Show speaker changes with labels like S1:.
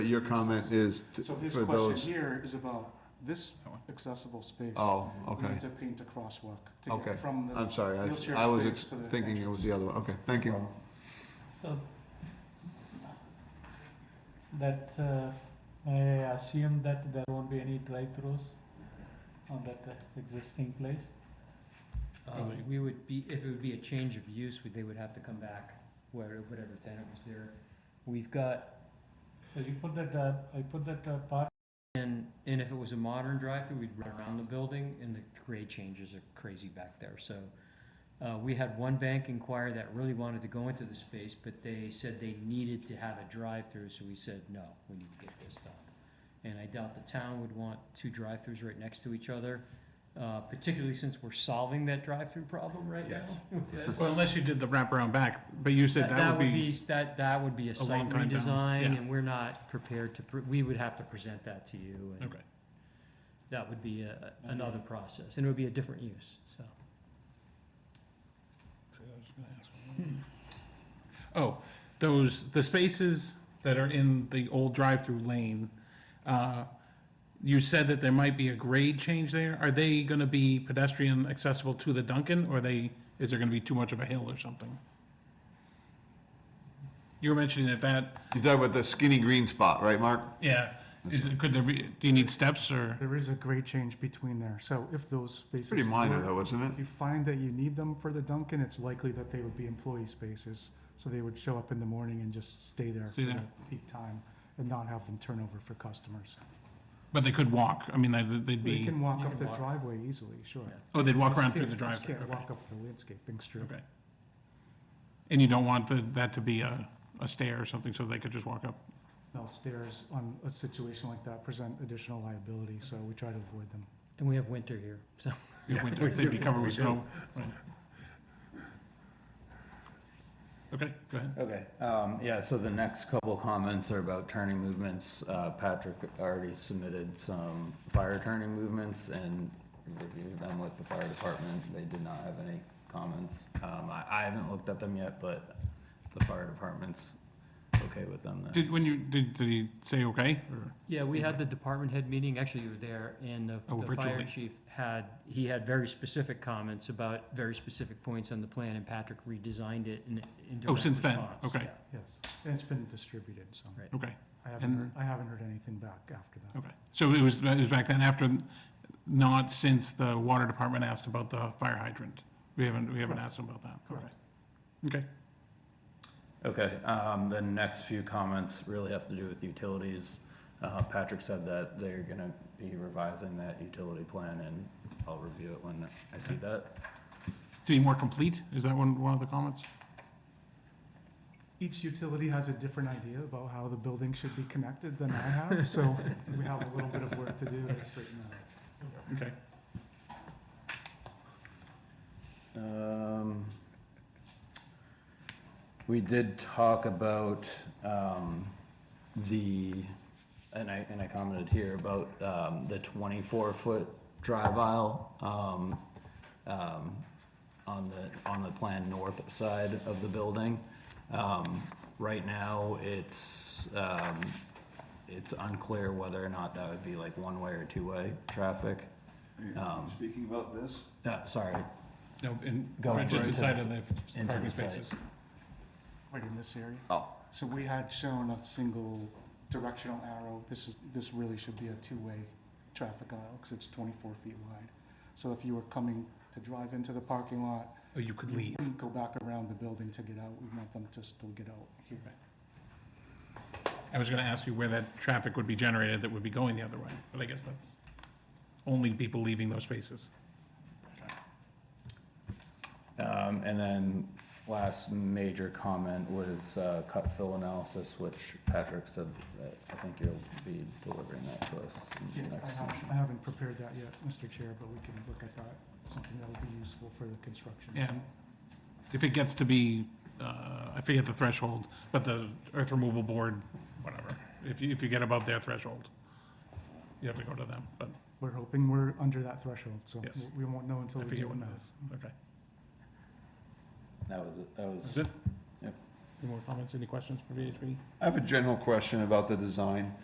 S1: your comment is t-
S2: So his
S1: for
S2: question
S1: those,
S2: here is about this accessible space.
S1: oh,
S2: We
S1: okay,
S2: need to paint a crosswalk to
S1: Okay.
S2: get from the.
S1: I'm sorry,
S2: wheelchair
S1: I, I was
S2: space Um,
S1: ex-
S2: to the
S1: thinking it was the other one, okay, thank you.
S3: So that uh, I assume that there won't be any drive-throughs on that uh, existing place.
S4: Um,
S5: Uh, we would be, if it would be a change of use, we- they would have to come back where, whatever tenant was there. We've got,
S3: So you put that uh, I put that uh, part.
S5: and, and if it was a modern drive-through, we'd run around the building and the grade changes are crazy back there, so. Uh, we had one bank inquire that really wanted to go into the space, but they said they needed to have a drive-through, so we said, no, we need to get this done. And I doubt the town would want two drive-throughs right next to each other, uh, particularly since we're solving that drive-through problem right now.
S4: Yes.
S5: with this.
S4: Well, unless you did the wraparound back, but you said that would be,
S5: That, that would be a
S4: a long
S5: site
S4: time down, yeah.
S5: redesign, and we're not prepared to, pre- we would have to present that to you, and
S4: okay.
S5: that would be a- another process, and it would be a different use, so. Hmm.
S4: Oh, those, the spaces that are in the old drive-through lane, uh, you said that there might be a grade change there. Are they gonna be pedestrian accessible to the Duncan, or they, is there gonna be too much of a hill or something? You were mentioning that that,
S1: You're talking about the skinny green spot, right, Mark?
S4: yeah, is, it- could there be, do you need steps or?
S2: There is a grade change between there, so if those spaces.
S1: Pretty minor
S2: were-
S1: though, isn't it?
S2: If you find that you need them for the Duncan, it's likely that they would be employee spaces. So they would show up in the morning and just stay there for
S4: Stay there.
S2: the peak time and not have them turn over for customers.
S4: But they could walk, I mean, they'd they'd
S2: They
S4: be,
S2: can walk
S5: You
S2: up
S5: can
S2: the
S5: walk.
S2: driveway easily, sure.
S5: Yeah.
S4: oh, they'd walk
S2: Just
S4: around through
S2: can't-
S4: the
S2: just
S4: drive-through,
S2: Can't
S4: okay.
S2: walk up the landscaping strip.
S4: Okay. And you don't want the- that to be a, a stair or something, so they could just walk up?
S2: No stairs on a situation like that present additional liability, so we try to avoid them.
S5: And we have winter here, so.
S4: If winter, they'd be covered with snow. Right. Okay, go ahead.
S6: Okay, um, yeah, so the next couple comments are about turning movements. Uh, Patrick already submitted some fire turning movements and reviewed them with the fire department. They did not have any comments. Um, I, I haven't looked at them yet, but the fire department's okay with them then.
S4: Did, when you, did, did he say okay, or?
S5: Yeah, we had the department head meeting, actually you were there, and the-
S4: Oh,
S5: the fire
S4: virtually.
S5: chief had, he had very specific comments about very specific points on the plan, and Patrick redesigned it in, in direct
S4: Oh, since then,
S5: response,
S4: okay.
S5: yeah.
S2: Yes, and it's been distributed, so
S5: Right.
S4: Okay,
S2: I haven't,
S4: And-
S2: heard- I haven't heard anything back after that.
S4: okay. So it was, it was back then after, not since the water department asked about the fire hydrant? We haven't, we haven't asked them about that? Okay.
S2: Correct.
S4: Okay,
S6: Okay, um, the next few comments really have to do with utilities. Uh, Patrick said that they're gonna be revising that utility plan and I'll review it when I see that.
S4: to be more complete, is that one, one of the comments?
S2: Each utility has a different idea about how the building should be connected than I have, so we have a little bit of work to do to straighten that out.
S4: Okay.
S6: Um, We did talk about um, the, and I, and I commented here about um, the 24-foot drive aisle um, um, on the, on the plan north side of the building. Um, Right now, it's, um, it's unclear whether or not that would be like one-way or two-way traffic. Um,
S1: Speaking about this?
S6: uh, Sorry,
S4: No, and,
S6: Go right
S4: just
S6: to
S4: inside
S6: the-
S4: of the
S6: into
S4: parking
S6: the site.
S4: spaces.
S2: Right in this area?
S6: Oh.
S2: So we had shown a single directional arrow. This is, this really should be a two-way traffic aisle because it's 24 feet wide. So if you were coming to drive into the parking lot,
S4: Oh, you could leave.
S2: you go back around the building to get out. We want them to still get out here.
S4: I was gonna ask you where that traffic would be generated that would be going the other way, but I guess that's only people leaving those spaces.
S6: Um, and then last major comment was, uh, cut fill analysis, which Patrick said that I think you'll be delivering that to us
S2: Yeah,
S6: in the
S2: I
S6: next.
S2: haven't, I haven't prepared that yet, Mr. Chair, but we can look at that, something that would be useful for the construction.
S4: Yeah. If it gets to be, uh, I forget the threshold, but the earth removal board, whatever, if you, if you get above their threshold, you have to go to them, but,
S2: We're hoping we're under that threshold, so
S4: Yes.
S2: we won't know until
S4: I
S2: we
S4: forget
S2: do the
S4: what it
S2: math.
S4: okay.
S6: That was, it. that
S4: Is
S6: was,
S4: it?
S6: Yep.
S4: Any more comments, any questions for VHB?
S1: I have a general question about the design.